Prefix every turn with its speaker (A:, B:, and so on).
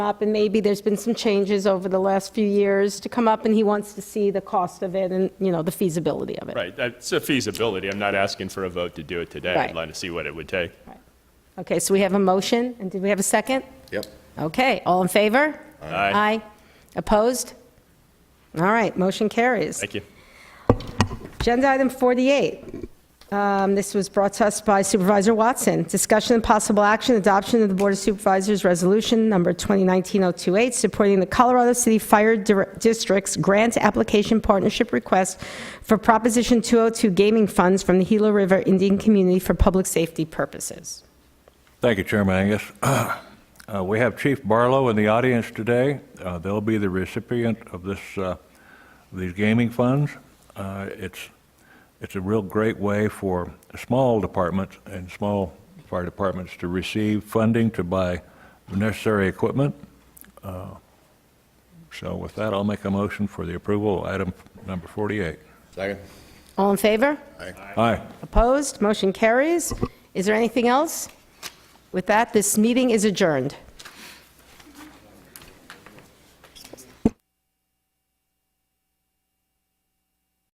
A: up, and maybe there's been some changes over the last few years to come up, and he wants to see the cost of it and, you know, the feasibility of it.
B: Right, it's a feasibility. I'm not asking for a vote to do it today.
A: Right.
B: I'd like to see what it would take.
A: Okay, so we have a motion, and did we have a second?
C: Yep.
A: Okay, all in favor?
B: Aye.
A: Opposed? All right, motion carries.
B: Thank you.
A: Agenda item 48. Um, This was brought to us by Supervisor Watson. Discussion and possible action, adoption of the Board of Supervisors Resolution Number 2019-028, supporting the Colorado City Fire Dir- District's grant application partnership request for Proposition 202 gaming funds from the Gila River Indian Community for public safety purposes.
D: Thank you, Chairman Angus. Uh, We have Chief Barlow in the audience today. Uh, They'll be the recipient of this, uh, these gaming funds. Uh, It's, it's a real great way for small departments and small fire departments to receive funding to buy necessary equipment. Uh, So with that, I'll make a motion for the approval, of item number 48.
C: Second.
A: All in favor?
D: Aye.
A: Opposed? Motion carries. Is there anything else? With that, this meeting is adjourned.